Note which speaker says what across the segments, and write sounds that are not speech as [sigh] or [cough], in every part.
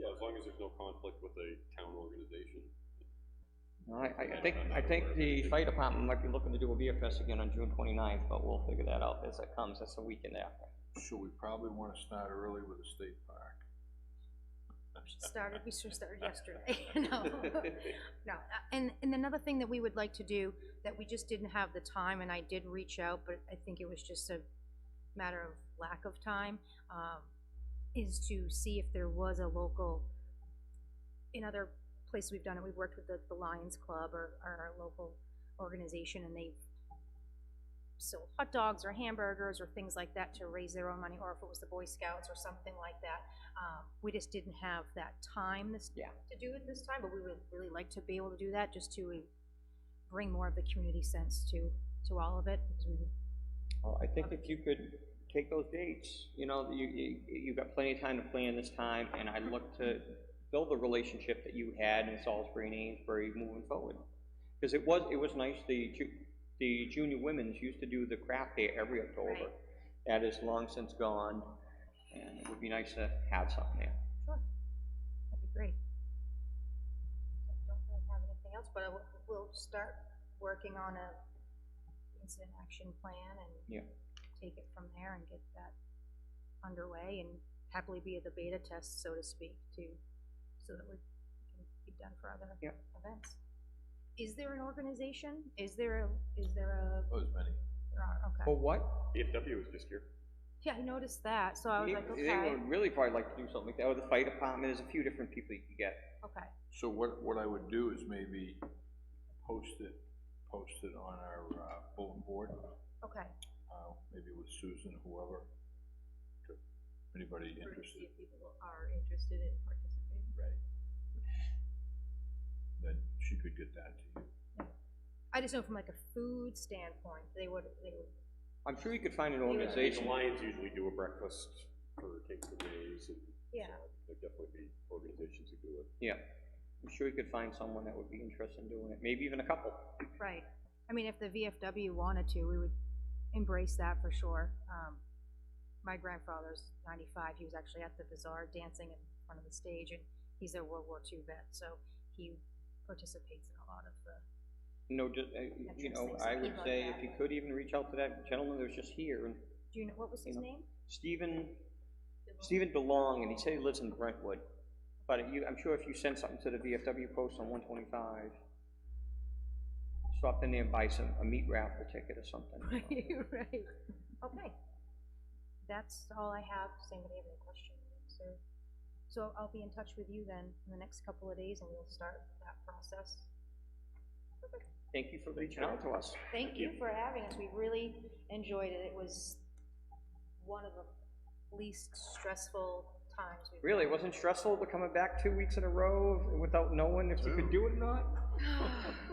Speaker 1: as there's no conflict with a town organization.
Speaker 2: No, I, I think, I think the fire department might be looking to do a beer fest again on June 29th, but we'll figure that out as it comes, that's the weekend after.
Speaker 3: So we probably wanna start early with the state park.
Speaker 4: started, we should have started yesterday, [laughs] no. No, uh, and, and another thing that we would like to do, that we just didn't have the time, and I did reach out, but I think it was just a matter of lack of time, um, is to see if there was a local, in other places we've done it, we've worked with the, the Lions Club or, or our local organization, and they've sold hot dogs or hamburgers or things like that to raise their own money, or if it was the Boy Scouts or something like that. Um, we just didn't have that time this,
Speaker 2: Yeah.
Speaker 4: to do it this time, but we would really like to be able to do that, just to uh, bring more of the community sense to, to all of it, because we,
Speaker 2: Well, I think if you could take those dates, you know, you, you, you've got plenty of time to plan this time, and I look to build the relationship that you had in Salisbury and Amesbury moving forward. Because it was, it was nice, the ju, the junior women's used to do the craft day every October.
Speaker 4: Right.
Speaker 2: That is long since gone, and it would be nice to have something there.
Speaker 4: that'd be great. I don't really have anything else, but I will- we'll start working on a incident action plan and
Speaker 2: Yeah.
Speaker 4: take it from there and get that underway and happily be at the beta test, so to speak, to, so that we can be done for other
Speaker 2: Yeah.
Speaker 4: events. Is there an organization? Is there a, is there a,
Speaker 3: Oh, as many.
Speaker 4: there are, okay.
Speaker 2: For what?
Speaker 1: EFW was just here.
Speaker 4: Yeah, I noticed that, so I was
Speaker 2: They
Speaker 4: like,
Speaker 2: they
Speaker 4: okay,
Speaker 2: would really probably like to do something like that, or the fire department, there's a few different people you can get.
Speaker 4: okay,
Speaker 3: So what, what I would do is maybe post it, post it on our uh, bulletin board,
Speaker 4: okay.
Speaker 3: uh, maybe with Susan, whoever. to- Anybody interested?
Speaker 4: if people are interested in participating.
Speaker 3: Right. Then she could get that to you.
Speaker 4: I just know from like a food standpoint, they would, they would,
Speaker 2: I'm sure you could find an
Speaker 1: The
Speaker 2: organization.
Speaker 1: Lions usually do a breakfast for Kings and Mays, and
Speaker 4: yeah,
Speaker 1: there'd definitely be organizations who do it.
Speaker 2: Yeah, I'm sure you could find someone that would be interested in doing it, maybe even a couple.
Speaker 4: right. I mean, if the VFW wanted to, we would embrace that for sure. Um, my grandfather's ninety-five, he was actually at the bazaar dancing in front of the stage, and he's a World War II vet, so he participates in a lot of the,
Speaker 2: No, just, uh, you know, I would say if you could even reach out to that gentleman that was just here, and
Speaker 4: do you know, what was his
Speaker 2: Yeah.
Speaker 4: name?
Speaker 2: Stephen, Stephen DeLong, and he said he lives in Brentwood. But you, I'm sure if you send something to the VFW post on one twenty-five, stop in there and buy some, a meat raffle ticket or [laughs] something.
Speaker 4: Right, right. Okay. That's all I have. Does anybody have any questions or? So I'll be in touch with you then in the next couple of days and we'll start that process.
Speaker 2: Thank you for reaching out to us.
Speaker 4: Thank you for having us. We really enjoyed it. It was one of the least stressful times we've.
Speaker 2: Really, it wasn't stressful, but coming back two weeks in a row without knowing if you could do it or not?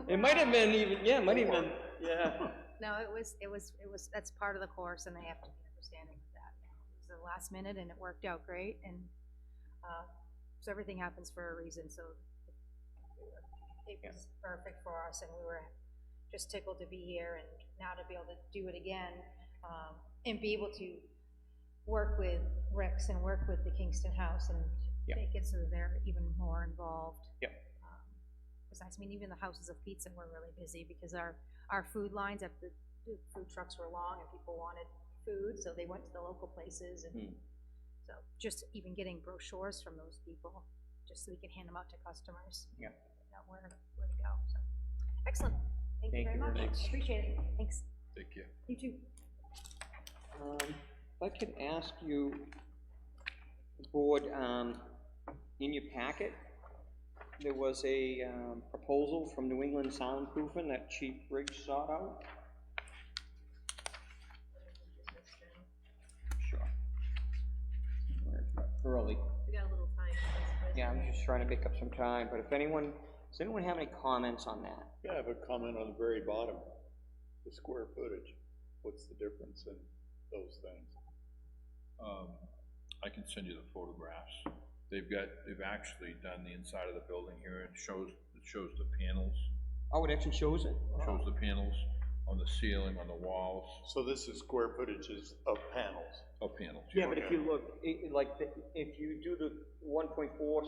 Speaker 2: It might have been even, yeah, it might have been, yeah.
Speaker 4: [laughs] No, it was, it was, it was, that's part of the course and they have to be understanding of that. It was the last minute and it worked out great and, uh, so everything happens for a reason, so it
Speaker 2: Yeah.
Speaker 4: was perfect for us and we were just tickled to be here and now to be able to do it again, um, and be able to work with Rex and work with the Kingston House and
Speaker 2: Yeah.
Speaker 4: make it so that they're even more involved.
Speaker 2: Yeah.
Speaker 4: Um, Besides, I mean, even the houses of pizza were really busy because our our food lines at the, the food trucks were long and people wanted food, so they went to the local places and
Speaker 2: Hmm.
Speaker 4: so just even getting brochures from those people, just so we can hand them out to customers.
Speaker 2: Yeah.
Speaker 4: You know, where, where to go, so. Excellent. Thank you very much. Appreciate it. Thanks.
Speaker 3: Take care.
Speaker 4: You too.
Speaker 2: Um, If I could ask you, Board, um, in your packet, there was a um, proposal from New England Soundproofing that Chief Briggs sought out. Sure. Where it's got Early.
Speaker 4: We got a little time.
Speaker 2: Yeah, I'm just trying to make up some time, but if anyone, does anyone have any comments on that?
Speaker 5: Yeah, I have a comment on the very bottom, the square footage, what's the difference in those things?
Speaker 3: Um, I can send you the photographs. They've got, they've actually done the inside of the building here and shows, it shows the panels,
Speaker 2: Oh, it actually shows it?
Speaker 3: shows the panels on the ceiling, on the walls,
Speaker 5: So this is square footage is of panels.
Speaker 3: oh, panels.
Speaker 2: Yeah, but if you look, i- i- like, the- if you do the one point four